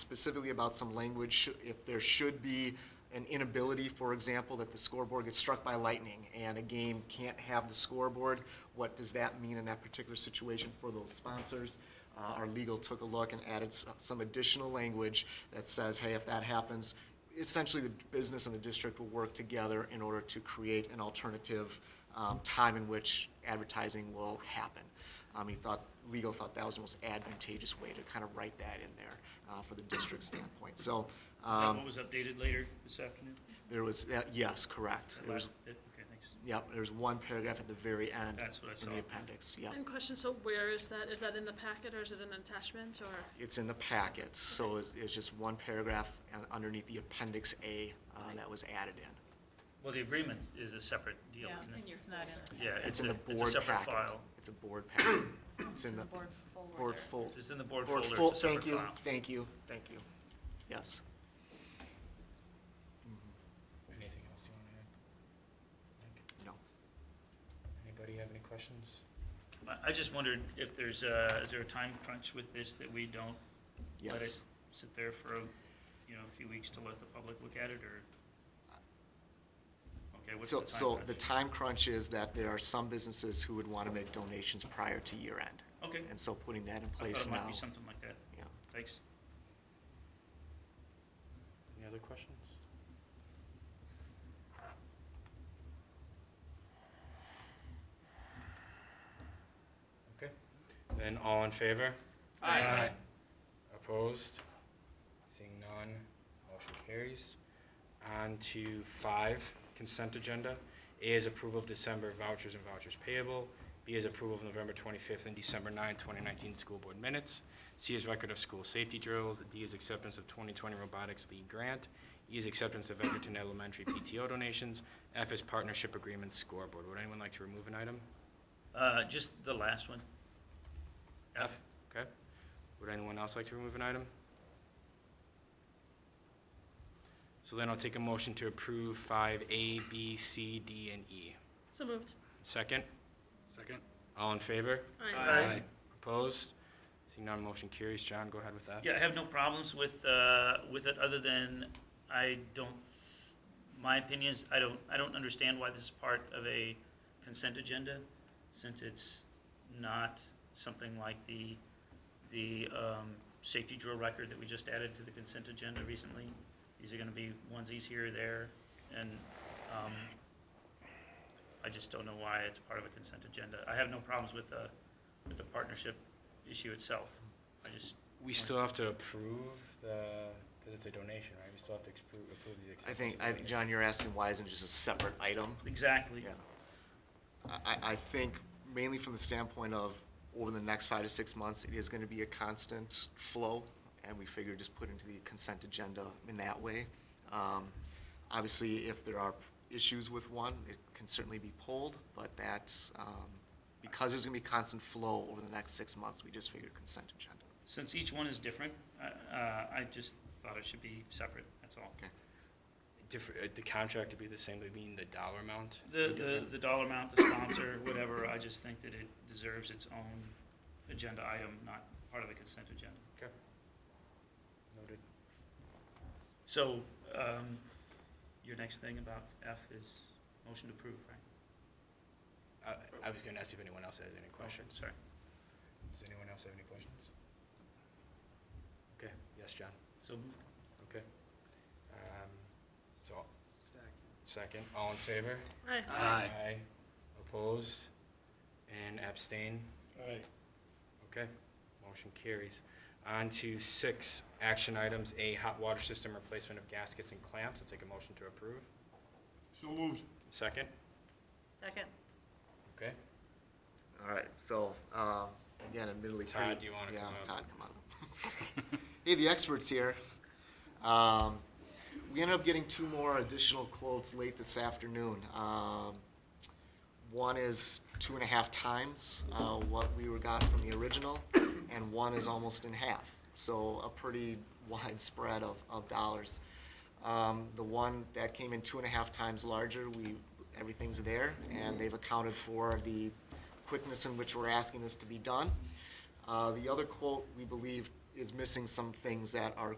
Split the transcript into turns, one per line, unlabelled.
specifically about some language, should- if there should be an inability, for example, that the scoreboard gets struck by lightning and a game can't have the scoreboard, what does that mean in that particular situation for those sponsors? Uh, Our legal took a look and added s- some additional language that says, hey, if that happens, essentially the business and the district will work together in order to create an alternative um, time in which advertising will happen. Um, He thought, legal thought that was the most advantageous way to kind of write that in there uh, for the district standpoint. So
Is that
um,
what was updated later this afternoon?
there was, that- yes, correct.
That
There was,
last bit? Okay, thanks.
yep, there's one paragraph at the very end.
That's what I
In
saw.
the appendix, yep.
And question, so where is that? Is that in the packet or is it an attachment or?
It's in the packets, so it's it's just one paragraph uh, underneath the appendix A uh, that was added in.
Well, the agreement is a separate deal,
Yeah, it's
isn't
in
it?
your folder.
Yeah,
It's in the
a- It's a
board
separate
packet.
file.
It's a board packet. It's in the
board
board
folder.
fol-
It's in the board
board
folder.
fol-
It's a separate
Thank you,
file.
thank you, thank you. Yes.
Mm-hmm.
Anything else you want to add? Mike?
No.
Anybody have any questions?
I- I just wondered if there's, uh, is there a time crunch with this that we don't let it
Yes.
sit there for, you know, a few weeks to let the public look at it, or? Okay, what's the
So,
time
so the
crunch?
time crunch is that there are some businesses who would want to make donations prior to year end.
Okay,
And so putting that in
I
place
thought it
now.
might be something like that.
Yeah.
Thanks.
Any other questions? Okay, then all in favor?
Aye. Aye.
Opposed? Seeing none, motion carries. On to five, consent agenda. A is approval of December vouchers and vouchers payable. B is approval of November 25th and December 9th, 2019 school board minutes. C is record of school safety drills. D is acceptance of 2020 Robotics League grant. E is acceptance of Edgerton Elementary PTO donations. F is partnership agreement scoreboard. Would anyone like to remove an item?
Uh, Just the last one. F,
Okay. Would anyone else like to remove an item? So then I'll take a motion to approve five A, B, C, D, and E.
So moved.
Second? Second. All in favor?
Aye.
Opposed? Seeing none, motion carries. John, go ahead with that.
Yeah, I have no problems with, uh, with it, other than I don't, my opinion is, I don't, I don't understand why this is part of a consent agenda, since it's not something like the, the um, safety drill record that we just added to the consent agenda recently. These are gonna be onesies here or there, and um, I just don't know why it's part of a consent agenda. I have no problems with the, with the partnership issue itself. I just,
We still have to approve the, because it's a donation, right? We still have to expro- approve the
I
acceptance.
think,
of
I
the
think,
donation.
John, you're asking why isn't it just a separate item?
Exactly.
Yeah. I, I- I think mainly from the standpoint of over the next five to six months, it is going to be a constant flow, and we figure just put into the consent agenda in that way. Um, Obviously, if there are issues with one, it can certainly be pulled, but that, um, because there's going to be constant flow over the next six months, we just figured consent agenda.
Since each one is different, I- uh, I just thought it should be separate, that's all.
Okay.
Different, uh, the contract would be the same, they mean the dollar amount?
The, the, the dollar amount, the sponsor, whatever, I just think that it deserves its own agenda item, not part of the consent agenda.
Okay. Noted.
So, um, your next thing about F is motion to approve, right?
Uh, I, I was gonna ask if anyone else has any questions.
Sorry.
Does anyone else have any questions? Okay, yes, John,
So,
okay. Um, So. Second. Second, all in favor?
Aye.
Aye. Opposed? And abstain? Aye. Okay, motion carries. On to six, action items, A, hot water system replacement of gaskets and clamps, I'll take a motion to approve. So moved. Second,
Second.
okay.
All right, so, um, again, admittedly. pretty-
Todd, do you wanna come up?
Yeah, Todd, come on up. Hey, the expert's here. Um, We ended up getting two more additional quotes late this afternoon. Um, One is two and a half times uh, what we were got from the original, and one is almost in half. So a pretty wide spread of, of dollars. Um, The one that came in two and a half times larger, we, everything's there, and they've accounted for the quickness in which we're asking this to be done. Uh, The other quote, we believe, is missing some things that are